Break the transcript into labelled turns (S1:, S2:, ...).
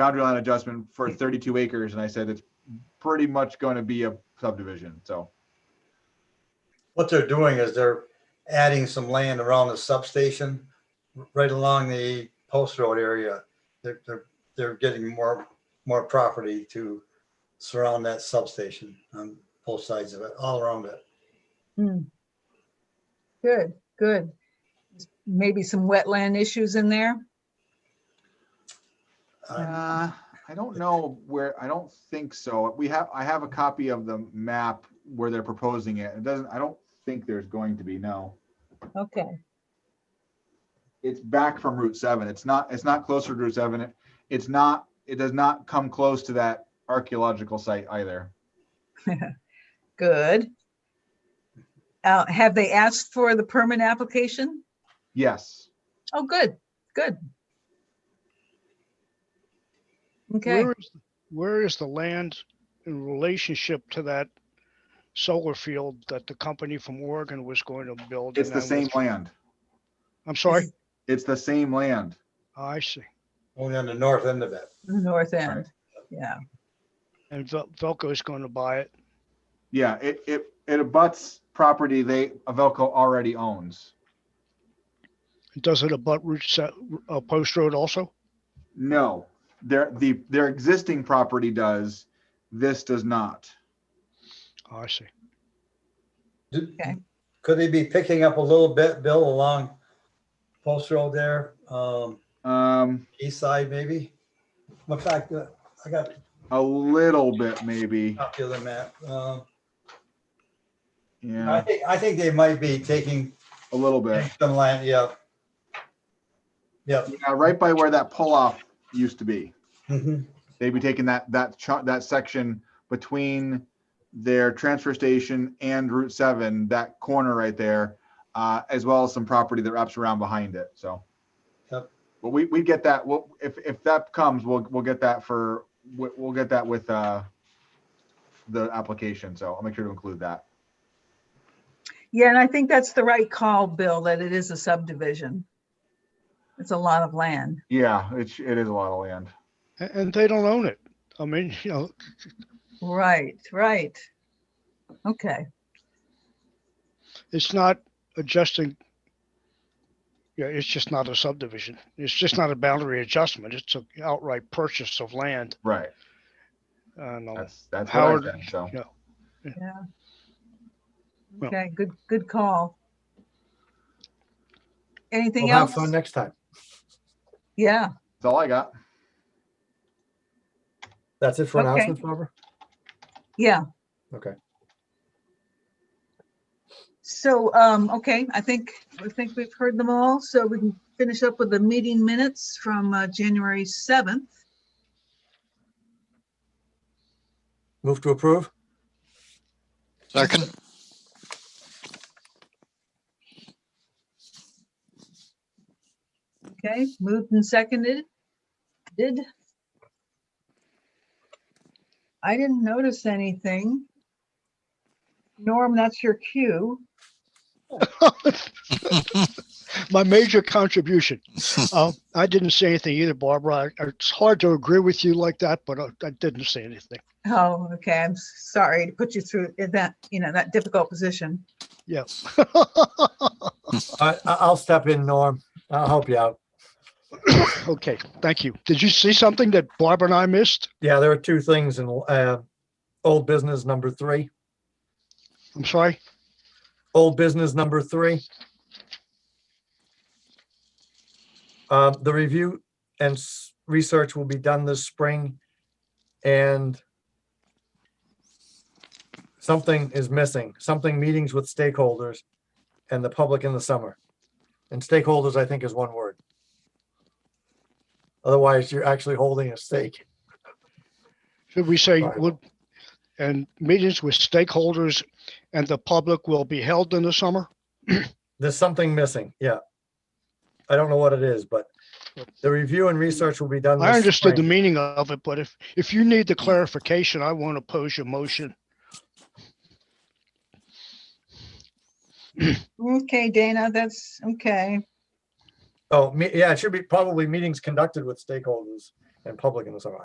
S1: boundary line adjustment for thirty-two acres, and I said it's pretty much gonna be a subdivision, so.
S2: What they're doing is they're adding some land around the substation, r- right along the post road area. They're, they're, they're getting more, more property to surround that substation on both sides of it, all around it.
S3: Hmm. Good, good. Maybe some wetland issues in there?
S2: Uh,
S1: Uh, I don't know where, I don't think so. We have, I have a copy of the map where they're proposing it. It doesn't, I don't think there's going to be, no.
S3: Okay,
S1: It's back from Route seven. It's not, it's not closer to Route seven. It- It's not, it does not come close to that archaeological site either.
S3: good. Uh, have they asked for the permit application?
S1: Yes,
S3: Oh, good, good. Okay,
S4: Where is, where is the land in relationship to that solar field that the company from Oregon was going to build?
S1: it's
S4: and
S1: the
S4: then
S1: same
S4: with-
S1: land.
S4: I'm sorry, Oh,
S1: It's the same land.
S4: I see.
S2: Only on the north end of it.
S3: the north end,
S1: Alright.
S3: yeah.
S4: And Vel- Velco is going to buy it.
S1: Yeah, it, it, it abuts property they, Avelco already owns.
S4: Does it abut Route, se- uh, Post Road also?
S1: No, their, the, their existing property does. This does not.
S4: Oh, I see.
S2: Do-
S3: Okay.
S2: Could they be picking up a little bit, Bill, along post road there, um,
S1: Um,
S2: east side maybe? In fact, uh, I got a
S1: a little bit maybe.
S2: copy of the map. Um, I
S1: Yeah,
S2: think, I think they might be taking
S1: a little bit.
S2: some land, yeah. Yep.
S1: Yeah, right by where that pull off used to be.
S5: Mm-hmm.
S2: Mhm.
S1: They'd be taking that, that chunk, that section between their transfer station and Route seven, that corner right there. Uh, as well as some property that wraps around behind it, so.
S2: Yep.
S1: But we, we get that, well, if, if that comes, we'll, we'll get that for, we'll, we'll get that with, uh. The application, so I'll make sure to include that.
S3: Yeah, and I think that's the right call, Bill, that it is a subdivision. It's a lot of land.
S1: Yeah, it's, it is a lot of land.
S4: A- And, they don't own it. I mean, you know,
S3: Right, right. Okay,
S4: it's not adjusting. Yeah, it's just not a subdivision. It's just not a boundary adjustment. It's an outright purchase of land.
S1: Right,
S4: And, uh,
S1: that's, that's what I
S4: Howard,
S1: said, so.
S4: Well-
S3: okay, good, good call.
S5: We'll
S3: Anything
S5: have
S3: else?
S5: fun next time.
S3: Yeah,
S1: That's all I got.
S5: That's it for
S3: Okay.
S5: announcements, Barbara?
S3: yeah.
S5: Okay.
S3: So, um, okay, I think, I think we've heard them all, so we can finish up with the meeting minutes from, uh, January seventh.
S5: Move to approve?
S6: Second,
S3: Okay, moved and seconded. Did. I didn't notice anything. Norm, that's your cue.
S4: my major contribution. Uh, I didn't say anything either, Barbara. I- It's hard to agree with you like that, but I- I didn't say anything.
S3: Oh, okay. I'm s- sorry to put you through i- that, you know, that difficult position.
S4: Yeah.
S5: I, I- I'll step in, Norm. I'll help you out.
S4: Okay, thank you. Did you see something that Barbara and I missed?
S5: Yeah, there are two things in, uh, old business number three,
S4: I'm sorry.
S5: old business number three. Uh, the review and s- research will be done this spring and something is missing, something meetings with stakeholders and the public in the summer. And stakeholders, I think, is one word. Otherwise, you're actually holding a stake.
S4: Should we say,
S5: Right.
S4: would, and meetings with stakeholders and the public will be held in the summer?
S5: There's something missing, yeah. I don't know what it is, but the review and research will be done.
S4: I
S5: this
S4: understood the
S5: spring.
S4: meaning of it, but if, if you need the clarification, I won't oppose your motion.
S3: Okay, Dana, that's okay.
S5: Oh, me, yeah, it should be probably meetings conducted with stakeholders and public in the summer.